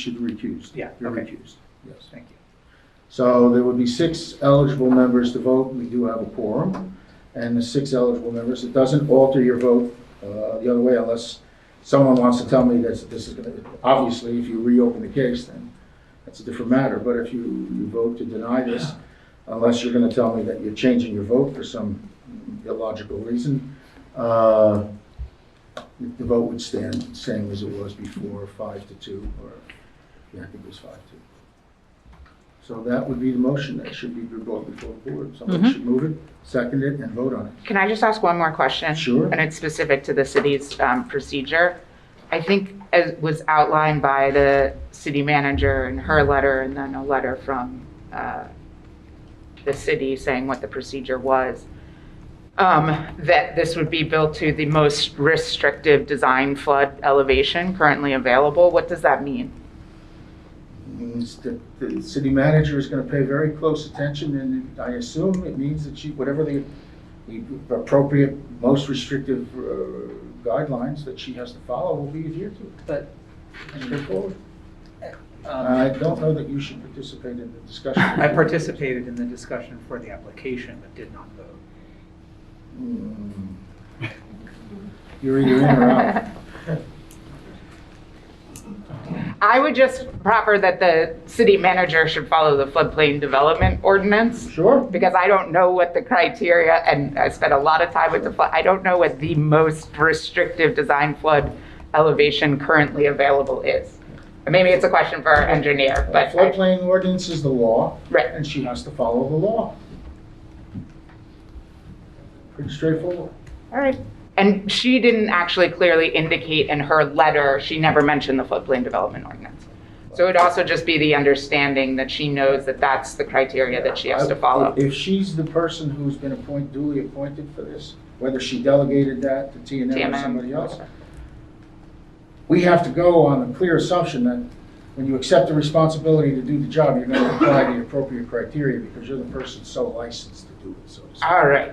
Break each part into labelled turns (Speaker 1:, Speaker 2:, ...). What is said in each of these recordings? Speaker 1: should recuse.
Speaker 2: Yeah,
Speaker 1: You're
Speaker 2: okay.
Speaker 1: recused, yes.
Speaker 2: Thank you.
Speaker 1: So there would be six eligible members to vote, we do have a quorum, and the six eligible members, it doesn't alter your vote uh, the other way unless someone wants to tell me that this is gonna, obviously, if you reopen the case, then that's a different matter, but if you, you vote to deny this, unless you're gonna tell me that you're changing your vote for some illogical reason, uh, the vote would stand same as it was before, five to two, or, yeah, I think it was five to two. So that would be the motion that should be brought before the board. Somebody
Speaker 2: Mm-hmm.
Speaker 3: Mhm.
Speaker 1: should move it, second it, and vote on it.
Speaker 3: Can I just ask one more question?
Speaker 1: Sure.
Speaker 3: And it's specific to the city's um, procedure. I think as was outlined by the city manager in her letter and then a letter from uh, the city saying what the procedure was, um, that this would be built to the most restrictive design flood elevation currently available. What does that mean?
Speaker 1: Means that the city manager is gonna pay very close attention, and I assume it means that she, whatever the the appropriate, most restrictive uh, guidelines that she has to follow will be adhered to.
Speaker 2: But, I mean,
Speaker 1: Straightforward.
Speaker 2: um,
Speaker 1: I don't know that you should participate in the discussion.
Speaker 2: I participated in the discussion for the application but did not vote.
Speaker 1: Hmm. You're either in or out.
Speaker 3: I would just proffer that the city manager should follow the floodplain development ordinance
Speaker 1: Sure?
Speaker 3: because I don't know what the criteria, and I spent a lot of time with the flood, I don't know what the most restrictive design flood elevation currently available is. And Maybe it's a question for our engineer,
Speaker 1: Uh,
Speaker 3: but, I-
Speaker 1: Floodplain ordinance is the law.
Speaker 3: Right.
Speaker 1: And she has to follow the law. Pretty straightforward.
Speaker 3: all right. And she didn't actually clearly indicate in her letter, she never mentioned the floodplain development ordinance. So it'd also just be the understanding that she knows that that's the criteria that she has to follow.
Speaker 1: If she's the person who's been appointed, duly appointed for this, whether she delegated that to T and M or
Speaker 3: TMM.
Speaker 1: somebody else, we have to go on the clear assumption that when you accept the responsibility to do the job, you're going to apply the appropriate criteria because you're the person so licensed to do it, so to speak.
Speaker 3: All right.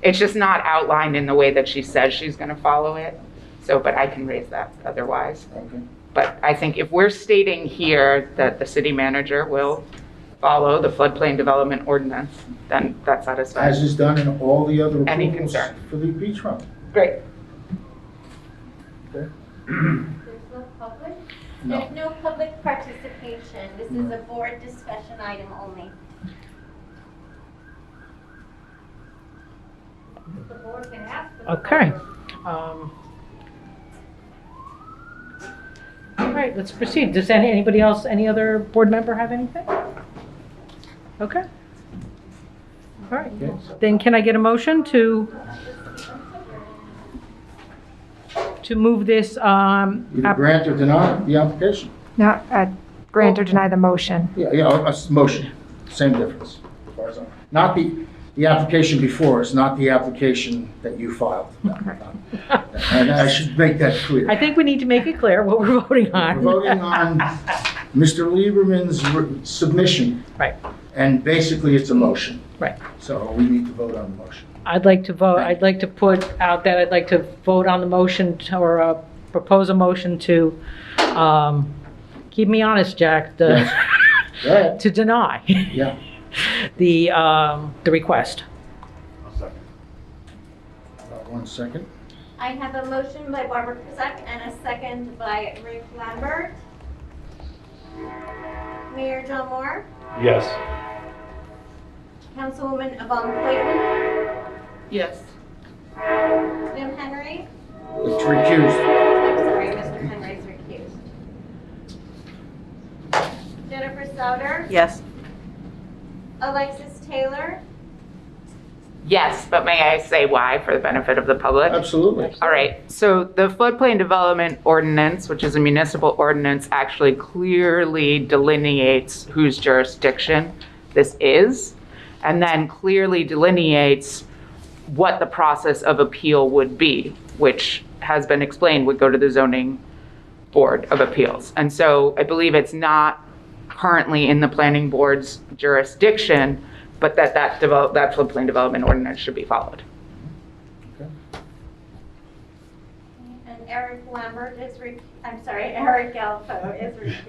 Speaker 3: It's just not outlined in the way that she says she's going to follow it. So, but I can raise that otherwise.
Speaker 1: Okay.
Speaker 3: But I think if we're stating here that the city manager will follow the floodplain development ordinance, then that
Speaker 1: As
Speaker 3: satisfies.
Speaker 1: is done in all the other
Speaker 3: Any
Speaker 1: approvals
Speaker 3: concern?
Speaker 1: for the beachfront.
Speaker 3: Great.
Speaker 1: Okay?
Speaker 4: There's no public?
Speaker 1: No.
Speaker 4: There's no public participation. This is a board discussion item only. The board can ask for the
Speaker 5: Okay.
Speaker 4: public.
Speaker 5: Um, All right, let's proceed. Does any, anybody else, any other board member have anything? Okay. All right,
Speaker 1: Okay, so-
Speaker 5: then can I get a motion to, to move this, um,
Speaker 1: Either
Speaker 5: app-
Speaker 1: grant or deny the application.
Speaker 6: Not uh, grant or deny the motion.
Speaker 1: Yeah, yeah, a s- motion, same difference. as far as I'm- Not the, the application before us, not the application that you filed. No, no. And I should make that clear.
Speaker 5: I think we need to make it clear what we're voting on.
Speaker 1: We're voting on Mr. Lieberman's re- submission.
Speaker 5: Right.
Speaker 1: And basically, it's a motion.
Speaker 5: Right.
Speaker 1: So we need to vote on the motion.
Speaker 5: I'd like to vote, I'd like to put out that I'd like to vote on the motion to- or uh, propose a motion to, um, keep me honest, Jack, the,
Speaker 1: Go ahead.
Speaker 5: to deny
Speaker 1: Yeah,
Speaker 5: the, um, the request.
Speaker 1: Uh, one second.
Speaker 4: I have a motion by Barbara Prusak and a second by Ruth Lambert. Mayor John Moore,
Speaker 7: Yes.
Speaker 4: Councilwoman Yvonne Clayton,
Speaker 3: Yes.
Speaker 4: Jim Henry.
Speaker 1: It's recused.
Speaker 4: I'm sorry, Mr. Henry's recused. Jennifer Souter,
Speaker 3: Yes.
Speaker 4: Alexis Taylor,
Speaker 3: Yes, but may I say why for the benefit of the public?
Speaker 1: Absolutely.
Speaker 3: All right, so the floodplain development ordinance, which is a municipal ordinance, actually clearly delineates whose jurisdiction this is, and then clearly delineates what the process of appeal would be, which has been explained would go to the zoning board of appeals. And so I believe it's not currently in the planning board's jurisdiction, but that that develop, that floodplain development ordinance should be followed.
Speaker 4: and Eric Lambert is, re- I'm sorry, Eric Galpo is recused.